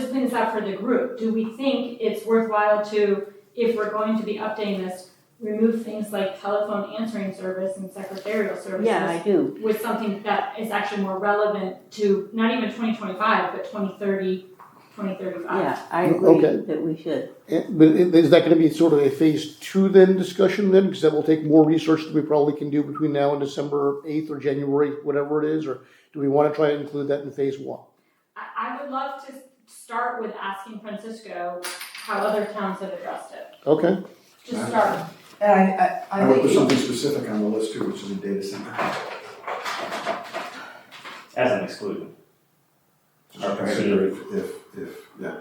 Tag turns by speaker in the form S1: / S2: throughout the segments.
S1: spin this out for the group, do we think it's worthwhile to, if we're going to be updating this, remove things like telephone answering service and secretarial services?
S2: Yeah, I do.
S1: With something that is actually more relevant to not even twenty twenty-five, but 2030, 2035.
S2: Yeah, I agree
S3: Okay.
S2: that we should.
S3: And- Eh, But i- is that gonna be sort of a phase two then discussion then? Because that will take more research than we probably can do between now and December eighth or January, whatever it is, or do we wanna try and include that in phase one?
S1: I, I would love to start with asking Francisco how other towns have addressed it,
S3: Okay,
S1: just start.
S4: And I, I,
S5: I
S4: I
S5: would put
S4: think,
S5: something specific on the list too, which is a data center.
S6: as an exclusion.
S5: Just consider if, if, if, yeah,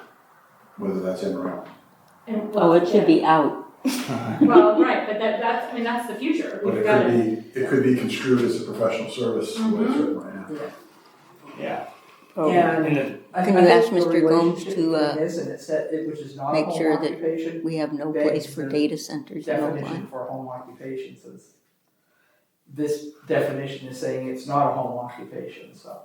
S5: whether that's in or out.
S1: And well,
S2: Oh, it should be out.
S1: yeah. Well, right, but that, that's, I mean, that's the future,
S5: But
S1: we've
S5: it
S1: Uh-huh. got to.
S5: could be, it could be construed as a professional service, the way it's written right now.
S6: Yeah.
S4: Yeah.
S6: And then
S4: I
S7: Can
S4: think
S7: you
S4: I
S7: ask
S4: think the
S7: Mr. Gomes
S4: relationship
S7: to, uh,
S4: between this and it said, it, which is not a
S7: make sure
S4: home
S7: that
S4: occupation,
S7: We have no
S4: That
S7: place
S4: is
S7: for
S4: the
S7: data centers in
S4: definition
S7: Novi.
S4: for home occupation says, this definition is saying it's not a home occupation, so.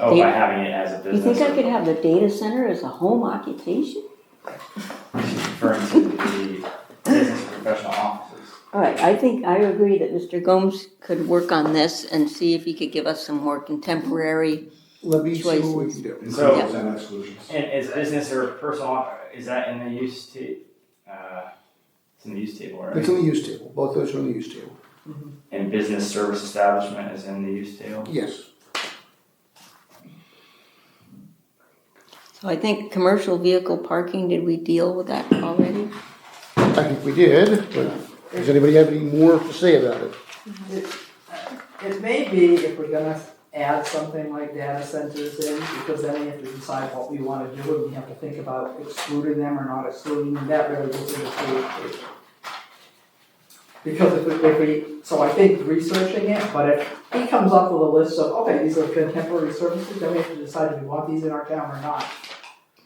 S6: oh, by having it as a
S2: You think
S6: business,
S2: I could have the data center as a home occupation?
S6: she's referring to the business and professional offices.
S2: All right, I think, I agree that Mr. Gomes could work on this and see if he could give us some more contemporary,
S3: let me see what we
S2: Choices.
S3: can do.
S6: So-
S5: Includes and exclusions.
S6: And is business or personal, is that in the use ta- uh, it's in the use table,
S3: It's
S6: right?
S3: on the use table, both those are on the use table.
S6: And business service establishment is in the use table?
S3: Yes,
S2: so I think commercial vehicle parking, did we deal with that already?
S3: I think we did, but does anybody have any more to say about it?
S4: It may be if we're gonna add something like data centers in, because then we have to decide what we wanna do, and we have to think about excluding them or not excluding them, that really goes into creativity. Because if we, if we, so I think researching it, but if he comes up with a list of, okay, these are contemporary services, then we have to decide if we want these in our town or not.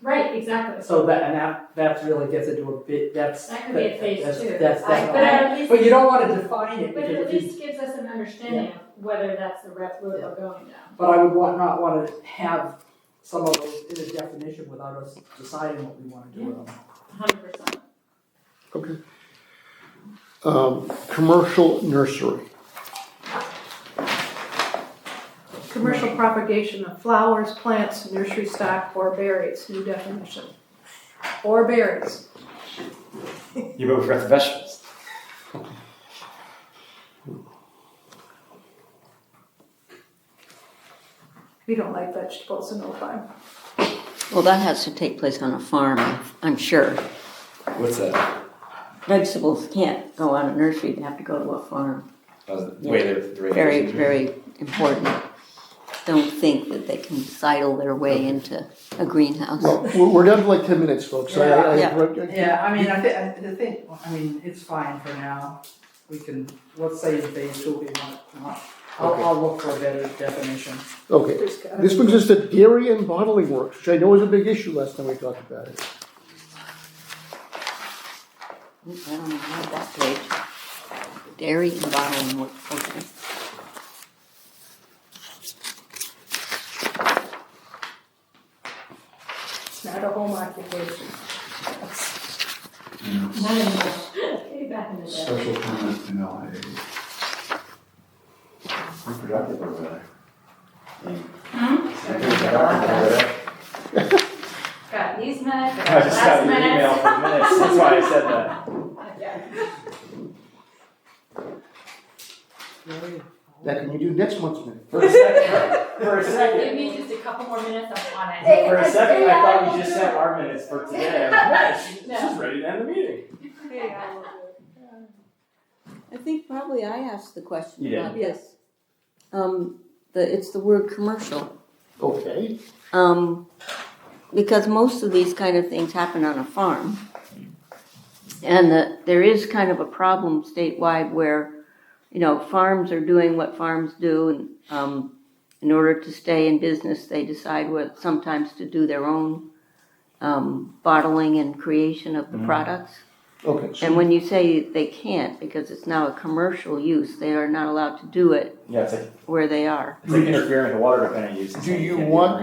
S1: Right, exactly.
S4: So that, and that, that really gets into a bit, that's.
S1: That could be a phase
S4: that's-
S1: two.
S4: That's
S1: I- But
S4: definitely,
S1: at least,
S4: but you don't wanna define it,
S1: but
S4: because
S1: it
S4: if
S1: at
S4: you
S1: least gives us an understanding of whether that's the route we're
S4: Yeah.
S1: going down.
S4: But I would want, not wanna have some of those in a definition without us deciding what we wanna do with them.
S1: Hundred percent.
S3: Okay. Um, commercial nursery,
S8: Commercial propagation of flowers, plants, nursery stock, or berries, new definition. Or berries.
S6: You vote for the vegetables.
S8: We don't like vegetables in Ojai.
S2: Well, that has to take place on a farm, I'm sure.
S6: What's that?
S2: Vegetables can't go on a nursery, they have to go to a farm. the way
S6: the
S2: Very, very important. Don't think that they can sidle their way into a greenhouse.
S3: well, we're, we're down to like ten minutes, folks, I, I- I-
S4: Yeah, I mean, I thi- I, the thing, I mean, it's fine for now, we can, let's say in phase two, we want, want, I'll,
S3: Okay.
S4: I'll look for a better definition.
S3: Okay, This brings us to dairy and bottling works, which I know was a big issue last time we talked about it.
S2: I don't even have that page. Dairy and bottling works, okay.
S8: It's not a home occupation.
S5: And
S1: Not anymore. Way back in the day.
S5: Special permit in LIA. Reproductive over there. Reproductive over there.
S1: Got these minutes, got
S6: I just got
S1: last
S6: your email
S1: minutes.
S6: for minutes, that's why I said that.
S3: That can you do next month's minute?
S6: For a second, for a second.
S1: Give me just a couple more minutes, I'm on it.
S6: For a second, I thought you just sent our minutes for today. I'm like, "Yeah, she-
S1: No.
S6: She's ready to end the meeting.
S2: I think probably I asked the question
S6: You
S2: about this. Um, the, it's the word commercial.
S3: Okay,
S2: Um, because most of these kind of things happen on a farm. And the, there is kind of a problem statewide where, you know, farms are doing what farms do and, um, in order to stay in business, they decide what, sometimes to do their own, um, bottling and creation of the products.
S3: okay, so
S2: And when you say they can't, because it's now a commercial use, they are not allowed to do it
S6: Yeah, it's like,
S2: where they are.
S6: it's like interfering with water dependent use.
S3: Do you want